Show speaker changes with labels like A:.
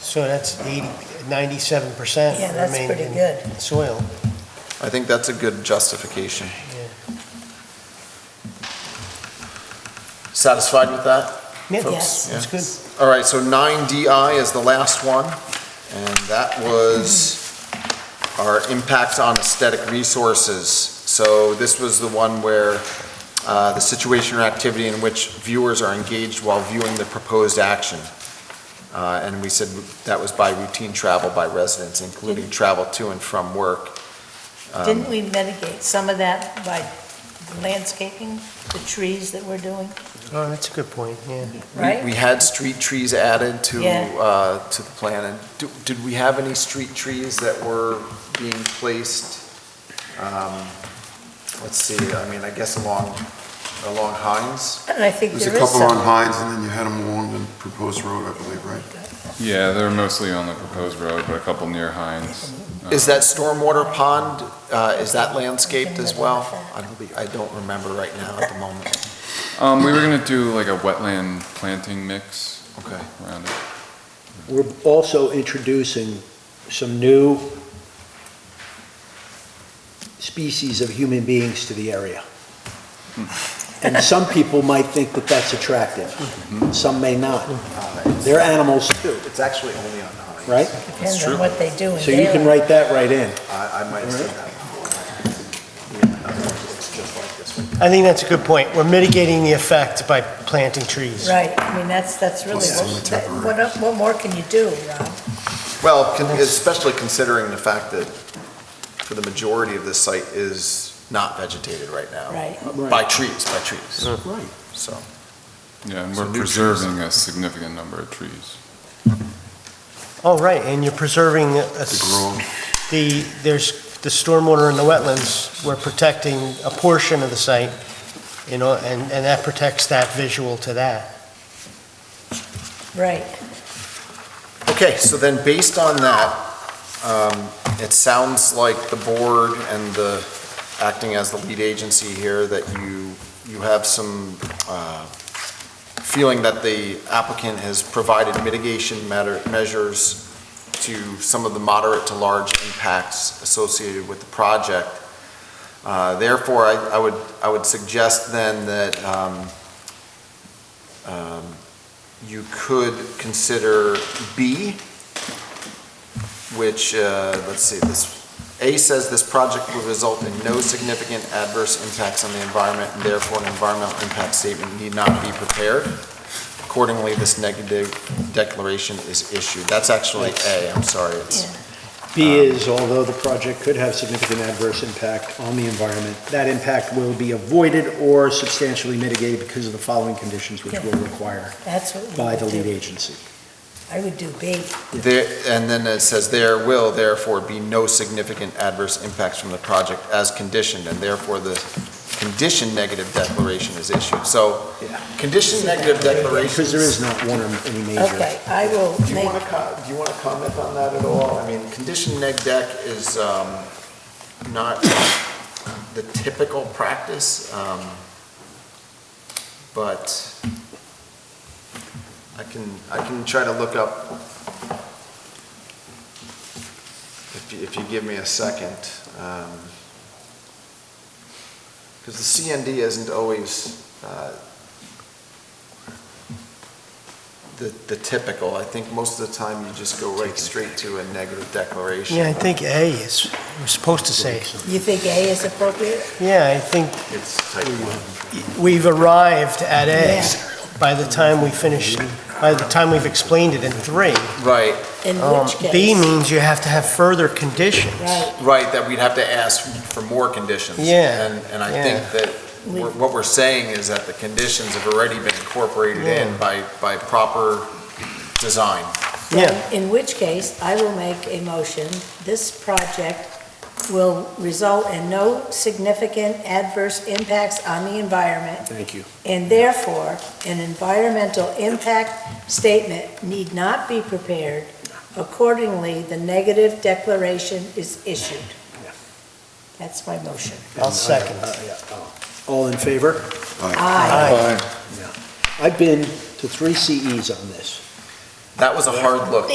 A: So that's 80, 97%
B: Yeah, that's
A: remain
B: pretty
A: in
B: good.
A: soil.
C: I think that's a good justification. Satisfied with that?
A: Yeah,
B: Yes.
C: folks?
A: that's good.
C: Yeah. All right, so nine DI is the last one, and that was our impact on aesthetic resources. So this was the one where uh, the situation or activity in which viewers are engaged while viewing the proposed action. Uh, And we said that was by routine travel by residents, including travel to and from work. Um,
B: Didn't we mitigate some of that by the landscaping, the trees that we're doing,
A: Oh, that's a good point, yeah.
C: We-
B: right?
C: We had street trees added to,
B: Yeah.
C: uh, to the plan, and do- did we have any street trees that were being placed? um, Let's see, I mean, I guess along, along Hines?
B: And I think
D: There's a
B: there is
D: couple
B: some.
D: on Hines, and then you had them along the proposed road, I believe, right?
E: Yeah, they're mostly on the proposed road, but a couple near Hines.
C: Is that stormwater pond, uh, is that landscaped as well?
B: Something like
C: I don't, be- I don't remember right now at the moment.
E: Um, we were gonna do like a wetland planting mix
C: Okay.
E: around it.
F: We're also introducing some new species of human beings to the area. And some people might think that that's attractive, some may not. They're animals too,
C: It's actually only on Hines.
F: right?
B: Depends on what they do in
F: So you can
B: Dayland.
F: write that right in.
C: I, I might have seen that before.
A: I think that's a good point. We're mitigating the effect by planting trees.
B: Right, I mean, that's, that's really,
D: Plus some
B: what, that-
D: temporary.
B: what el- what more can you do, Rob?
C: Well, con- especially considering the fact that for the majority of this site is not vegetated right now.
B: Right.
C: By trees, by trees,
F: Right.
C: so.
E: Yeah, and
C: So
E: we're
C: new trees.
E: preserving a significant number of trees.
A: Oh, right, and you're preserving a-
D: The grove,
A: the, there's the stormwater in the wetlands. We're protecting a portion of the site, you know, and, and that protects that visual to that.
B: Right,
C: Okay, so then based on that, um, it sounds like the board and the, acting as the lead agency here, that you, you have some uh, feeling that the applicant has provided mitigation matter- measures to some of the moderate to large impacts associated with the project. Uh, Therefore, I I would, I would suggest then that um, um, you could consider B, which, uh, let's see, this, A says this project would result in no significant adverse impacts on the environment, and therefore an environmental impact statement need not be prepared. Accordingly, this negative declaration is issued. That's actually A, I'm sorry, it's,
F: B is, although the project could have significant adverse impact on the environment, that impact will be avoided or substantially mitigated because of the following conditions which we'll require
B: that's what
F: by
B: we
F: the
B: would
F: lead
B: do.
F: agency.
B: I would do B,
C: there, and then it says there will therefore be no significant adverse impacts from the project as conditioned, and therefore the condition negative declaration is issued. So,
F: Yeah.
C: condition negative declaration.
F: Because there is not one or any major.
B: okay, I will
C: Do you
B: make,
C: want to, do you want to comment on that at all? I mean, condition neg deck is um, not the typical practice, um, but I can, I can try to look up, if you, if you give me a second, because the CND isn't always uh, the the typical. I think most of the time, you just go right straight to a negative declaration.
A: Yeah, I think A is, we're supposed to say.
B: you think A is appropriate?
A: Yeah, I think
C: It's type one.
A: we've arrived at A
B: Yeah.
A: by the time we finish, by the time we've explained it in three.
C: Right,
B: In
A: Um,
B: which case?
A: B means you have to have further conditions.
B: Right,
C: right, that we'd have to ask for more conditions.
A: Yeah,
C: And, and I
A: yeah.
C: think that we're- what we're saying is that the conditions have already been incorporated in by, by proper design.
A: Yeah.
B: in which case, I will make a motion, this project will result in no significant adverse impacts on the environment
F: Thank you.
B: and therefore, an environmental impact statement need not be prepared. Accordingly, the negative declaration is issued.
F: Yeah.
B: That's my motion.
A: I'll second.
F: Uh, yeah, oh. All in favor?
B: Aye.
F: I've been to three CEs on this.
C: That was a hard look.